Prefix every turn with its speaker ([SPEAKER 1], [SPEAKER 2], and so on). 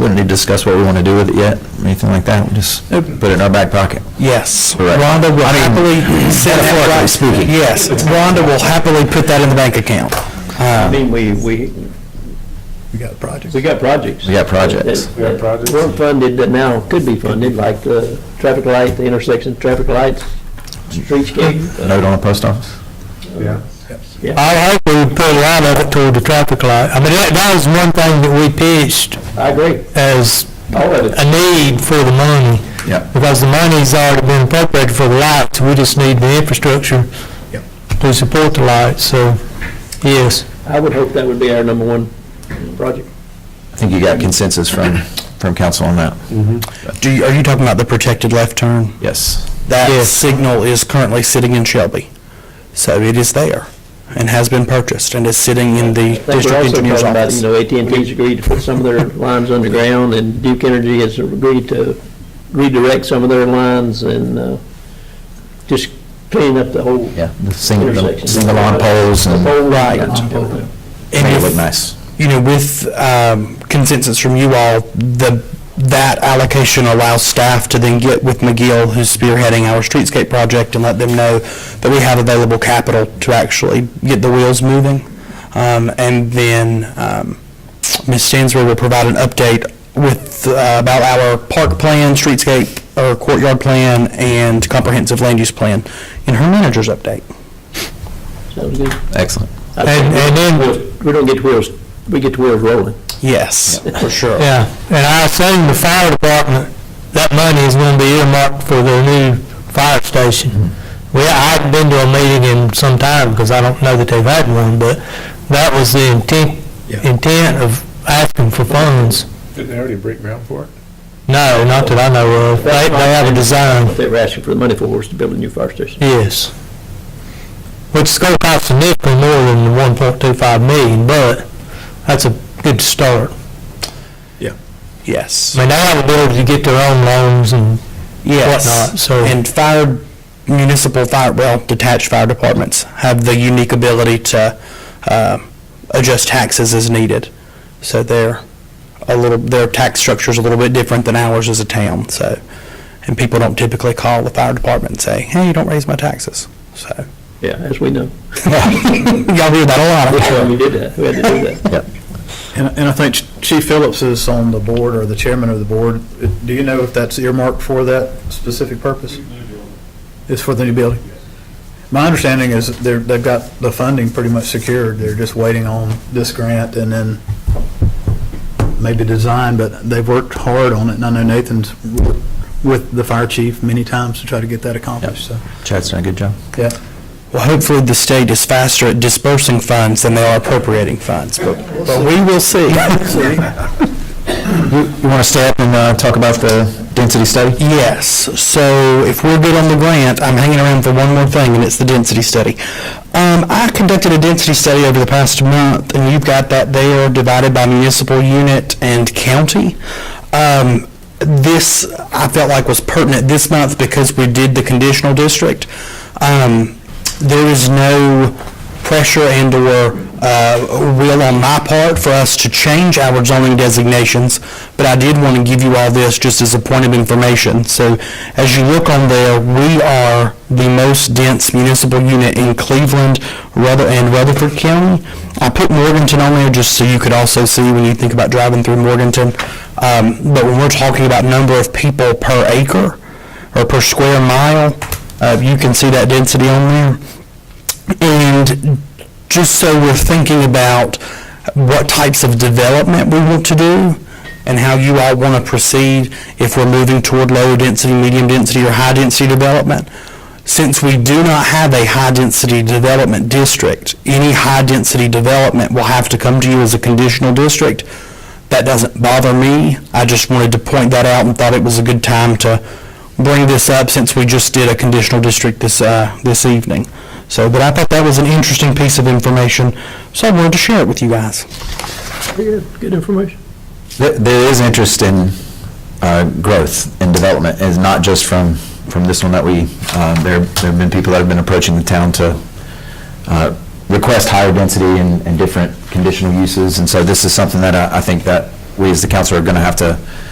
[SPEAKER 1] wouldn't need to discuss what we want to do with it yet, anything like that, we just put it in our back pocket.
[SPEAKER 2] Yes.
[SPEAKER 1] Correct.
[SPEAKER 2] Rhonda will happily send that
[SPEAKER 1] metaphorically
[SPEAKER 2] right.
[SPEAKER 1] speaking.
[SPEAKER 2] Yes, Rhonda will happily put that in the bank account. Um,
[SPEAKER 3] I mean, we, we,
[SPEAKER 4] We got projects.
[SPEAKER 3] we got projects.
[SPEAKER 1] We got projects.
[SPEAKER 3] We got projects. Weren't funded, that now could be funded, like the traffic light, the intersection, traffic lights, streetscape.
[SPEAKER 1] Note on the post office?
[SPEAKER 2] I hope we put a lot of it toward the traffic light. I mean, that, that was one thing that we pitched
[SPEAKER 3] I agree,
[SPEAKER 2] as
[SPEAKER 3] all of
[SPEAKER 2] a
[SPEAKER 3] it.
[SPEAKER 2] need for the money,
[SPEAKER 1] Yeah.
[SPEAKER 2] because the money's already been appropriated for the lights, we just need the infrastructure
[SPEAKER 4] Yep.
[SPEAKER 2] to support the lights, so, yes.
[SPEAKER 3] I would hope that would be our number one project.
[SPEAKER 1] I think you got consensus from, from council on that.
[SPEAKER 5] Do you, are you talking about the protected left turn?
[SPEAKER 1] Yes.
[SPEAKER 5] That
[SPEAKER 2] Yes.
[SPEAKER 5] signal is currently sitting in Shelby. So it is there and has been purchased and is sitting in the
[SPEAKER 3] I think we're
[SPEAKER 5] district
[SPEAKER 3] also
[SPEAKER 5] engineer's
[SPEAKER 3] talking about, you
[SPEAKER 5] office.
[SPEAKER 3] know, at and ts agreed to put some of their lines underground, and Duke Energy has agreed to redirect some of their lines and uh, just clean up the whole
[SPEAKER 1] Yeah, the single, the
[SPEAKER 3] intersection.
[SPEAKER 1] single on poles and
[SPEAKER 3] The whole
[SPEAKER 5] Right.
[SPEAKER 3] line.
[SPEAKER 5] And
[SPEAKER 1] make it
[SPEAKER 5] if-
[SPEAKER 1] look nice.
[SPEAKER 5] You know, with um, consensus from you all, the, that allocation allows staff to then get with McGill, who's spearheading our streetscape project, and let them know that we have available capital to actually get the wheels moving. Um, And then um, Ms. Stansbury will provide an update with, uh, about our park plan, streetscape, or courtyard plan, and comprehensive land use plan in her manager's update.
[SPEAKER 3] Sounds good.
[SPEAKER 1] Excellent.
[SPEAKER 3] I
[SPEAKER 2] And,
[SPEAKER 3] think
[SPEAKER 2] and then,
[SPEAKER 3] we- We don't get wheels, we get wheels rolling.
[SPEAKER 5] Yes, for sure.
[SPEAKER 2] yeah, and I assume the fire department, that money is gonna be earmarked for their new fire station. We, I haven't been to a meeting in some time, because I don't know that they've had one, but that was the intent,
[SPEAKER 4] Yeah.
[SPEAKER 2] intent of asking for funds.
[SPEAKER 4] Didn't they already break ground for it?
[SPEAKER 2] No, not that I know of. They, they have a design,
[SPEAKER 3] What they were asking for the money for was to build a new fire station.
[SPEAKER 2] yes. Which is gonna cost significantly more than the one point two five million, but that's a good start.
[SPEAKER 5] Yes.
[SPEAKER 2] I mean, they have ability to get their own loans and
[SPEAKER 5] Yes.
[SPEAKER 2] whatnot, so-
[SPEAKER 5] And fire, municipal fire, well, detached fire departments have the unique ability to um, adjust taxes as needed. So they're a little, their tax structure's a little bit different than ours as a town, so. And people don't typically call the fire department and say, hey, you don't raise my taxes, so.
[SPEAKER 3] Yeah, as we know.
[SPEAKER 5] Y'all hear that a lot.
[SPEAKER 3] We did that, we had to do that.
[SPEAKER 4] And, and I think Chief Phillips is on the board, or the chairman of the board. Do you know if that's earmarked for that specific purpose? It's for the new building? My understanding is that they're, they've got the funding pretty much secured. They're just waiting on this grant and then maybe design, but they've worked hard on it. And I know Nathan's worked with the fire chief many times to try to get that accomplished, so,
[SPEAKER 1] Chad's done a good job.
[SPEAKER 4] yeah.
[SPEAKER 5] Well, hopefully the state is faster at dispersing funds than they are appropriating funds, but but we will see.
[SPEAKER 1] You want to stay up and uh, talk about the density study?
[SPEAKER 5] Yes, so if we're good on the grant, I'm hanging around for one more thing, and it's the density study. Um, I conducted a density study over the past month, and you've got that there divided by municipal unit and county. Um, this, I felt like was pertinent this month because we did the conditional district. Um, there is no pressure and/or uh, will on my part for us to change our zoning designations, but I did want to give you all this just as a point of information. So as you look on there, we are the most dense municipal unit in Cleveland Ruther- and Rutherford County. I put Morganton on there just so you could also see when you think about driving through Morganton. Um, But when we're talking about number of people per acre or per square mile, uh, you can see that density on there. And just so we're thinking about what types of development we want to do and how you all want to proceed if we're moving toward lower density, medium density, or high density development. Since we do not have a high density development district, any high density development will have to come to you as a conditional district. That doesn't bother me. I just wanted to point that out and thought it was a good time to bring this up since we just did a conditional district this, uh, this evening. So, but I thought that was an interesting piece of information, so I wanted to share it with you guys.
[SPEAKER 3] Very Good, good information.
[SPEAKER 1] There- There is interest in uh, growth and development, and not just from, from this one that we, uh, there there have been people that have been approaching the town to uh, request higher density and and different conditional uses, and so this is something that I I think that we as the council are going to have to